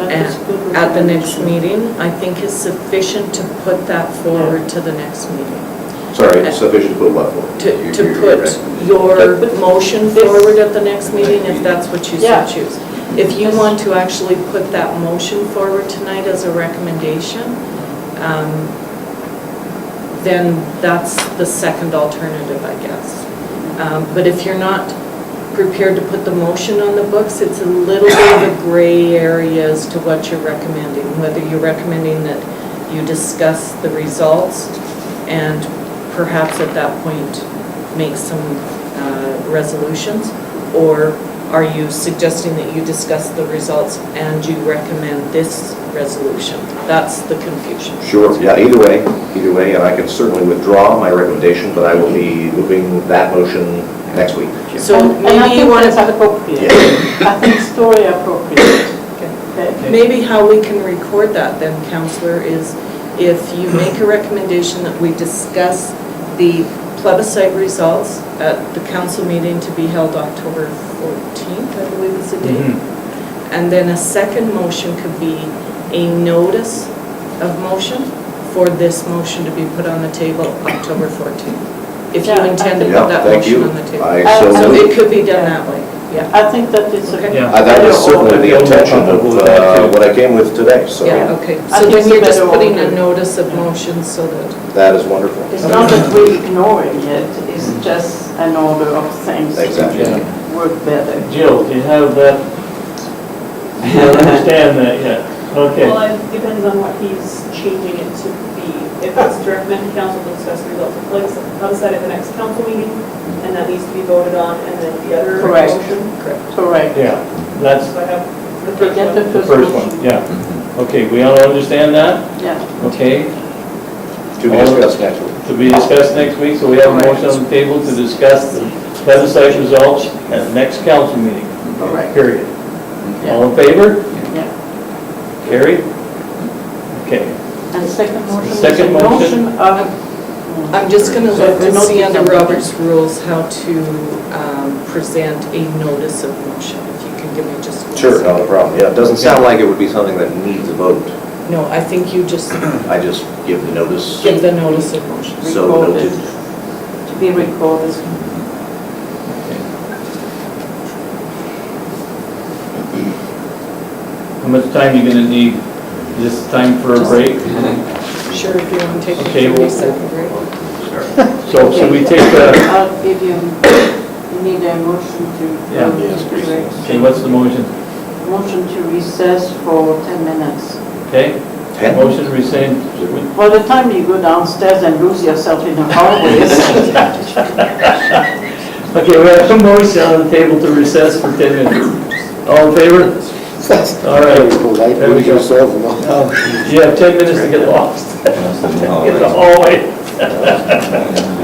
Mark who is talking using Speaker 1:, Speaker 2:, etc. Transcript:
Speaker 1: at at the next meeting, I think is sufficient to put that forward to the next meeting.
Speaker 2: Sorry, sufficient to put what for?
Speaker 1: To,
Speaker 2: Your-
Speaker 1: to
Speaker 2: your
Speaker 1: put
Speaker 2: recommendation.
Speaker 1: your motion
Speaker 3: This-
Speaker 1: forward at the next meeting, if that's what you so
Speaker 3: Yeah.
Speaker 1: choose. If you want to actually put that motion forward tonight as a recommendation, um, then that's the second alternative, I guess. Um, But if you're not prepared to put the motion on the books, it's a little bit of a gray area as to what you're recommending, whether you're recommending that you discuss the results and perhaps at that point make some uh, resolutions, or are you suggesting that you discuss the results and you recommend this resolution? That's the confusion.
Speaker 2: Sure, yeah, either way, either way, and I can certainly withdraw my recommendation, but I will be moving that motion next week.
Speaker 1: So
Speaker 3: And- And I
Speaker 1: maybe you
Speaker 3: think
Speaker 1: want
Speaker 3: that's
Speaker 1: to,
Speaker 3: appropriate. I think story appropriate. Okay.
Speaker 1: maybe how we can record that then, counselor, is if you make a recommendation that we discuss the plebiscite results at the council meeting to be held October 14th, I believe is the date. And then a second motion could be a notice of motion for this motion to be put on the table October 14th. If you
Speaker 3: Yeah, I
Speaker 1: intend to
Speaker 3: think-
Speaker 1: put
Speaker 2: Yeah,
Speaker 1: that
Speaker 2: thank
Speaker 1: motion
Speaker 2: you.
Speaker 1: on the table.
Speaker 2: I
Speaker 3: Uh,
Speaker 2: so
Speaker 1: So
Speaker 3: so
Speaker 2: moved.
Speaker 1: it could be done that way, yeah.
Speaker 3: I think that is a.
Speaker 1: Okay.
Speaker 2: Uh, That was certainly the intention of uh, what I came with today, so
Speaker 1: Yeah, okay.
Speaker 3: I
Speaker 1: So
Speaker 3: think
Speaker 1: then
Speaker 3: it's
Speaker 1: you're just
Speaker 3: better
Speaker 1: putting a Mm-hmm.
Speaker 3: order.
Speaker 1: notice of motion so that,
Speaker 2: that is wonderful.
Speaker 3: It's not that we ignore it yet, it's just an order of things.
Speaker 2: Exactly.
Speaker 4: Yeah.
Speaker 3: Work better.
Speaker 4: Jill, do you have that? Do you understand that yet? Okay.
Speaker 5: Well, it depends on what he's changing it to be. If it's to recommend to council to discuss results of plebiscite plebiscite at the next council meeting, and that needs to be voted on, and then the other
Speaker 3: Correct.
Speaker 5: motion.
Speaker 1: correct.
Speaker 3: Correct.
Speaker 4: Yeah, that's
Speaker 5: So I have the
Speaker 3: Okay,
Speaker 5: first
Speaker 3: get the
Speaker 5: one.
Speaker 4: the first one, yeah. Okay, we all understand that?
Speaker 3: Yeah.
Speaker 4: Okay,
Speaker 2: To be discussed next week.
Speaker 4: to be discussed next week, so we have a motion on the table to discuss the plebiscite results at the next council meeting,
Speaker 3: Correct.
Speaker 4: period.
Speaker 3: Yeah.
Speaker 4: All in favor?
Speaker 3: Yeah.
Speaker 4: Carried? Okay.
Speaker 3: And second motion is a
Speaker 4: Second motion.
Speaker 3: motion of.
Speaker 1: I'm just going to look to
Speaker 3: Notice
Speaker 1: see under
Speaker 3: of-
Speaker 1: Robert's rules how to um, present a notice of motion, if you can give me just one
Speaker 2: Sure,
Speaker 1: second.
Speaker 2: not a problem. Yeah, it doesn't sound like it would be something that needs a vote.
Speaker 1: No, I think you just
Speaker 2: I just give the notice.
Speaker 1: give the notice of motion.
Speaker 2: So
Speaker 3: Recorded.
Speaker 2: noted.
Speaker 3: To be recorded.
Speaker 4: How much time you gonna need? Is this time for a break?
Speaker 1: Sure, if you want to take a
Speaker 4: Okay, well-
Speaker 1: 30-second break.
Speaker 4: So should we take a,
Speaker 3: I'll give you, you need a motion to.
Speaker 4: Yeah. okay, what's the motion?
Speaker 3: Motion to recess for 10 minutes.
Speaker 4: Okay?
Speaker 2: Ten?
Speaker 4: Motion rescind,
Speaker 3: By the time you go downstairs and lose yourself in the hallways.
Speaker 4: Okay, we have a motion on the table to recess for 10 minutes. All in favor? All right. There we go. You have 10 minutes to get lost. Get the hallway.